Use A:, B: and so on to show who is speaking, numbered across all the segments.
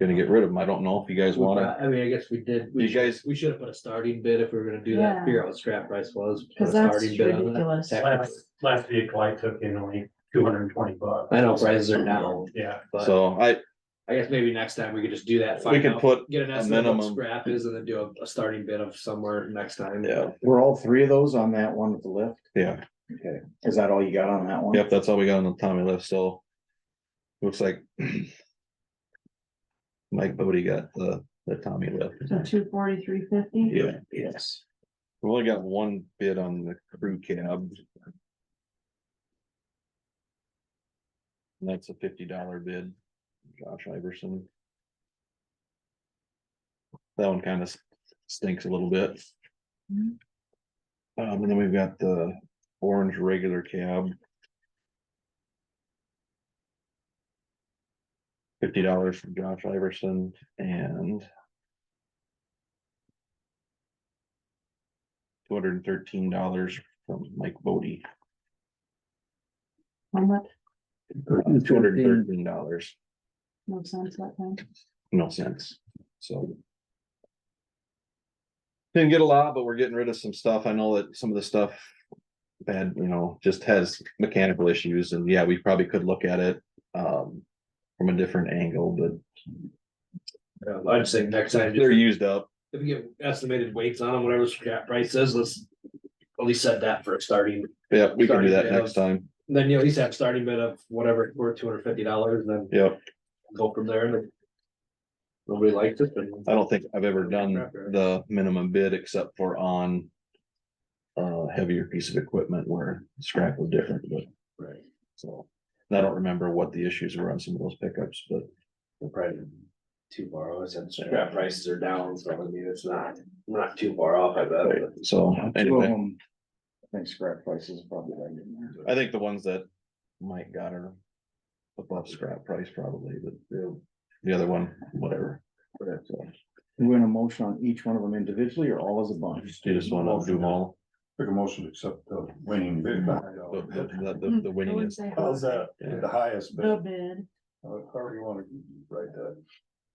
A: gonna get rid of them. I don't know if you guys wanna,
B: I mean, I guess we did,
A: you
B: we should,
A: guys,
B: we should have put a starting bid if we were gonna do that,
C: Yeah.
B: figure out what scrap price was. put a
C: Cause that's
B: starting bid on that.
C: ridiculous.
D: Last, last vehicle I took in only two hundred and twenty bucks.
B: I know prices are now,
D: Yeah,
B: but
A: so I,
B: I guess maybe next time we could just do that.
A: we
B: find
A: could
B: out,
A: put,
B: Get an
A: a
B: estimate of what
A: minimum.
B: scrap is and then do a, a starting bid of somewhere next time.
A: yeah,
E: Were all three of those on that one with the lift?
A: yeah,
E: Okay, is that all you got on that one?
A: yep, that's all we got on the Tommy list, so. Looks like. Mike Bodie got the, the Tommy lift.
C: So two forty-three fifty?
A: Yeah,
E: Yes.
A: we only got one bid on the crew cab. And That's a fifty dollar bid, Josh Iverson. That one kind of stinks a little bit.
C: Mhm.
A: Um, and then we've got the orange regular cab. Fifty dollars from Josh Iverson and two hundred and thirteen dollars from Mike Bodie,
C: How much?
A: Uh, two hundred and thirteen dollars,
C: No sense that thing.
A: no cents, so. Didn't get a lot, but we're getting rid of some stuff. I know that some of the stuff. Bad, you know, just has mechanical issues and yeah, we probably could look at it, um, from a different angle, but
B: Yeah, Uh, I'd say next time,
A: they're
B: just
A: used up.
B: if we get estimated weights on them, whatever scrap price is, let's at least set that for a starting.
A: Yeah, we can do
B: Starting
A: that
B: to
A: next time.
B: Then you at least have starting bid of whatever, it's worth two hundred fifty dollars, then
A: Yep,
B: go from there and. if Nobody liked it, then.
A: I don't think I've ever done the minimum bid except for on. Uh, heavier piece of equipment where scrap was different, but.
B: Right.
A: So, and I don't remember what the issues were on some of those pickups, but
B: They're Probably too far off, I said scrap prices are down, so I mean, it's not, we're not too far off, I
A: Uh,
B: bet. but-
A: so
E: Two of
A: anyway,
E: them. I think scrap prices are probably right in there.
A: I think the ones that Mike got are above scrap price probably, but the- the other one, whatever. So,
E: You want a motion on each one of them individually or all as a bunch?
A: You just want to do them all,
F: Make a motion to accept the winning
A: the,
F: bid.
A: the,
F: How's
A: the- the, the winning is,
C: uh,
F: that? The highest
C: The
F: bid.
C: bid.
F: However you wanna write that.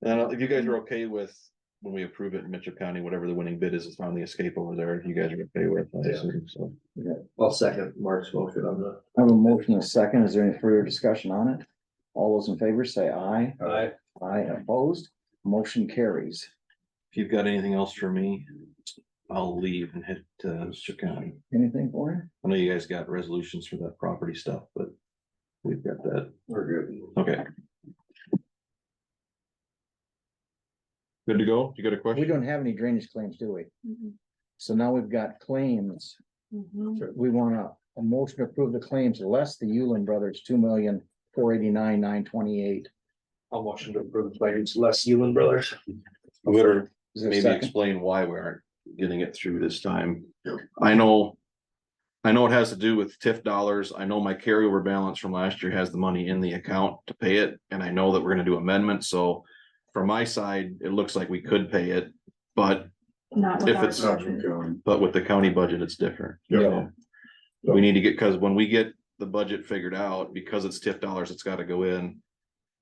A: and uh, if you guys are okay with. When we approve it in Mitchell County, whatever the winning bid is, it's on the escape over there, if you guys are okay with, it, I assume, so.
B: I'll second Mark's motion on the.
E: I have a motion and a second. Is there any further discussion on it? All those in favor say aye.
B: I,
E: Aye opposed. Motion carries.
A: If you've got anything else for me, I'll leave and head to Mitchell County.
E: Anything for you?
A: I know you guys got resolutions for that property stuff, but we've got that,
B: we're good.
A: okay. Good to go? You got a
E: We
A: question?
E: don't have any drainage claims, do we?
C: Mhm,
E: So now we've got claims.
C: mhm.
E: We want a, a motion to approve the claims less the Yulin Brothers, two million, four eighty-nine, nine twenty-eight.
B: I'll motion to approve the claims, Les Yulin Brothers.
A: Or
E: Is there a
A: maybe
E: second?
A: explain why we aren't getting it through this time. I know. I know it has to do with TIF dollars. I know my carryover balance from last year has the money in the account to pay it, and I know that we're gonna do amendments, so. From my side, it looks like we could pay it, but,
C: Not with
A: If
C: our
A: it's
F: Not
C: budget.
F: from county.
A: but with the county budget, it's different.
F: Yeah.
A: We need to get, cause when we get the budget figured out, because it's TIF dollars, it's gotta go in.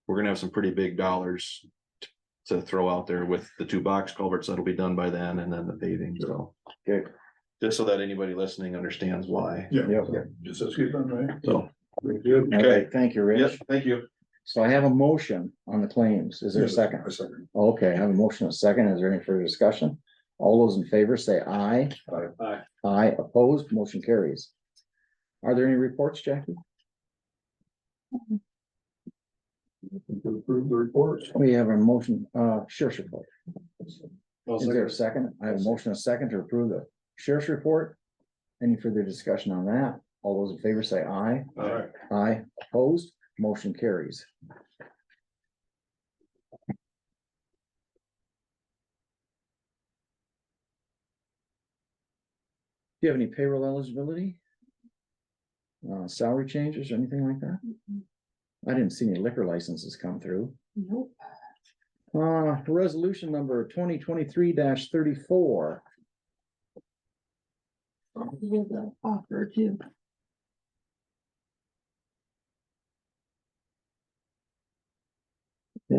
A: We're gonna have some pretty big dollars. t- To throw out there with the two box culverts that'll be done by then and then the paving, so.
E: Good.
A: Just so that anybody listening understands why,
E: Yep.
F: Just excuse me, right?
A: so.
E: All right, thank you, Rich.
A: thank you.
E: So I have a motion on the claims. Is there a second?
F: A second.
E: Okay, I have a motion, and a second. Is there any further discussion? All those in favor say aye.
B: Aye.
E: Aye opposed, motion carries. Are there any reports, Jackie?
F: To approve the report.
E: We have a motion, uh, sheriff's report.
B: I'll
E: Is there a
B: second.
E: second? I have a motion, and a second to approve the sheriff's report. Any further discussion on that? All those in favor say aye.
B: All right.
E: Aye, opposed, motion carries. Do you have any payroll eligibility? Uh, salary changes or anything like that?
C: Mhm.
E: I didn't see any liquor licenses come through.
C: Nope.
E: Uh, resolution number twenty twenty-three thirty-four.
C: With the offer too.